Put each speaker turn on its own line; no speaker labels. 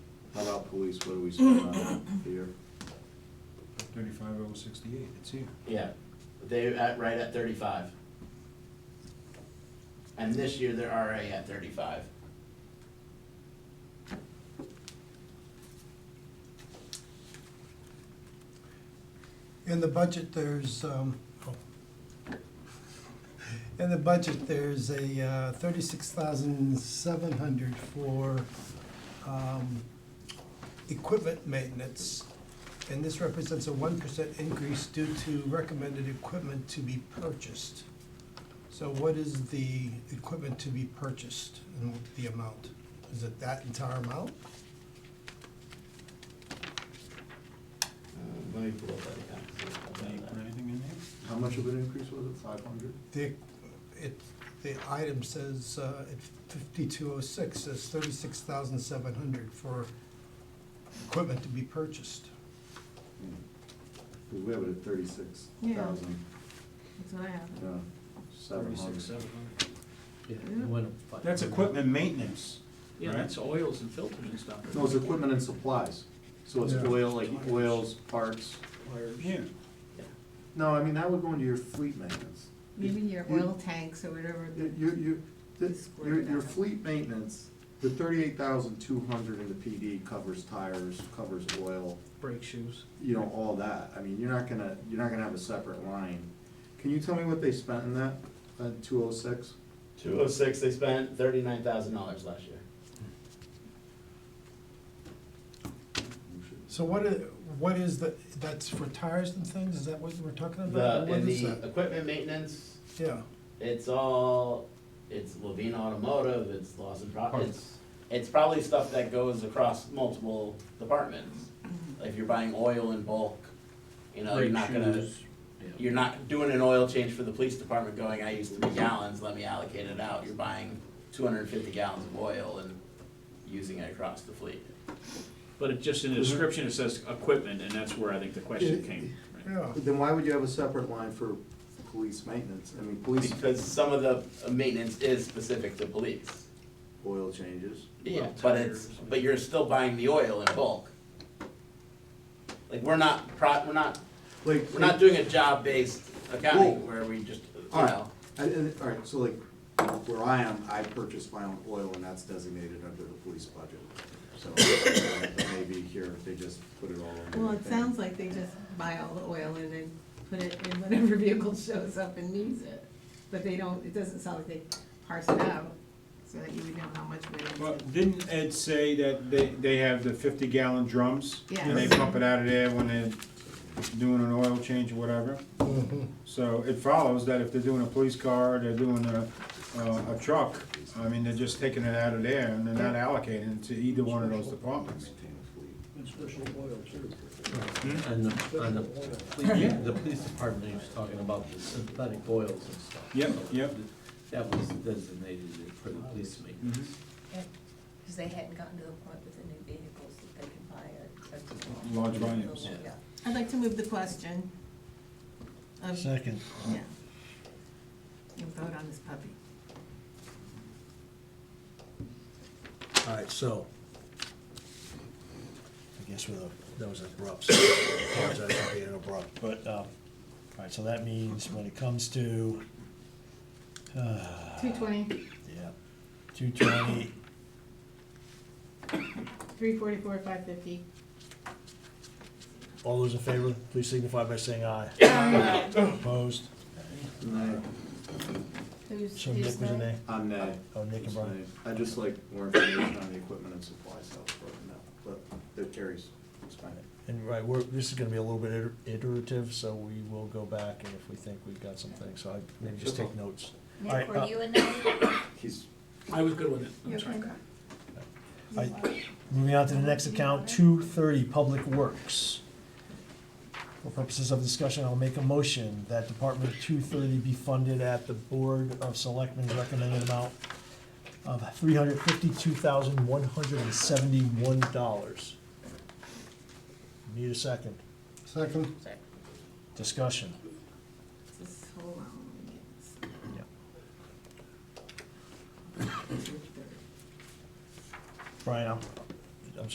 police, what do we spend on it here?
Thirty-five oh sixty-eight, it's here.
Yeah, they at, right at thirty-five. And this year, they're already at thirty-five. Uh,
In the budget, there's, um, oh. in the budget, there's a uh, thirty-six thousand seven hundred for um, equipment maintenance. And this represents a one percent increase due to recommended equipment to be purchased. So what is the equipment to be purchased and the amount? Is it that entire amount?
Uh, Let me pull up that
Can you put
account.
anything in there?
How much of an increase was it, five hundred?
The, it, the item says, uh, at fifty-two oh six, says thirty-six thousand seven hundred for equipment to be purchased.
Because Hmm. we have it at thirty-six thousand,
That's what I have.
yeah, seven hundred.
Yeah,
Mm-hmm.
it went up five.
That's equipment maintenance,
Yeah, that's oils and filters and stuff.
No, it's equipment and supplies, so it's
Yeah.
oil, like oils, parts.
yeah.
No, I mean, that would go into your fleet maintenance.
Maybe your
You-
oil tanks or whatever.
You, you- you, this,
Square
your,
it
your
out.
fleet maintenance, the thirty-eight thousand two hundred in the PD covers tires, covers oil,
Brake shoes.
you know, all that. I mean, you're not gonna, you're not gonna have a separate line. Can you tell me what they spent in that, uh, two oh six?
Two oh six, they spent thirty-nine thousand dollars last year.
So what is, what is the, that's for tires and things, is that what we're talking about?
The,
Or what
in
is
the
that?
equipment maintenance,
Yeah,
it's all, it's Levine Automotive, it's Lawson Pro, it's, it's probably stuff that goes across multiple departments. If you're buying oil in bulk, you know, you're
brake
not gonna,
shoes, yeah.
you're not doing an oil change for the police department going, I use three gallons, let me allocate it out. You're buying two hundred and fifty gallons of oil and using it across the fleet.
But it just in the description, it says equipment, and that's where I think the question came. right?
Oh.
yeah,
Then why would you have a separate line for police maintenance? I mean, police
Because some of the maintenance is specific to police.
oil changes.
Yeah,
Well,
but it's,
tires.
but you're still buying the oil in bulk. Like, we're not pro, we're not,
Like,
we're not doing a job-based accounting where we just, you know.
I- I- all right, so like, where I am, I purchase my own oil and that's designated under the police budget. So uh, but maybe here, they just put it all in.
Well,
one
it
thing.
sounds like they just buy all the oil and then put it in whatever vehicle shows up and needs it. But they don't, it doesn't sound like they parse it out, so that you would know how much went
Well,
into.
didn't Ed say that they, they have the fifty gallon drums? And they
Yes.
pump it out of there when they're doing an oil change or whatever? So it follows that if they're doing a police car, they're doing a, uh, a a truck, I mean, they're just taking it out of there and they're not allocating it to either one of those departments.
And special oil too.
And the, and the, police- the police department, he was talking about the synthetic oils and stuff.
Yep,
So
yep.
That was designated for the police
Mm-hmm.
maintenance.
Because they hadn't gotten to the point with the new vehicles that they could buy a. a-
Large volumes.
Yeah.
I'd like to move the question. of-
Second.
Yeah. You vote on this puppy.
All right, so. I guess with a, that was abrupt, so I apologize for being abrupt, but, um, all right, so that means when it comes to, uh,
Two twenty,
yeah, two twenty,
three forty-four, five fifty.
all those in favor, please signify by saying aye. Opposed?
Who's,
So Nick
who's
was in
that?
there?
Uh, I'm nay.
Oh, Nick and Brian.
I just like more information on the equipment and supplies house, but no, but it carries, it's fine.
And right, we're, this is gonna be a little bit iter- iterative, so we will go back and if we think we've got some things, so I, maybe just take notes. All right,
Nick,
uh,
were you in that?
He's,
I was good with it,
You
I'm sorry.
okay?
All right, Moving on to the next account, two thirty, Public Works. For purposes of discussion, I'll make a motion that Department two thirty be funded at the Board of Selectmen's recommended amount of three hundred fifty-two thousand, one hundred and seventy-one dollars. Need a second.
second,
Discussion.
Just hold on, let me
Yep.
get this.
Brian, I'm,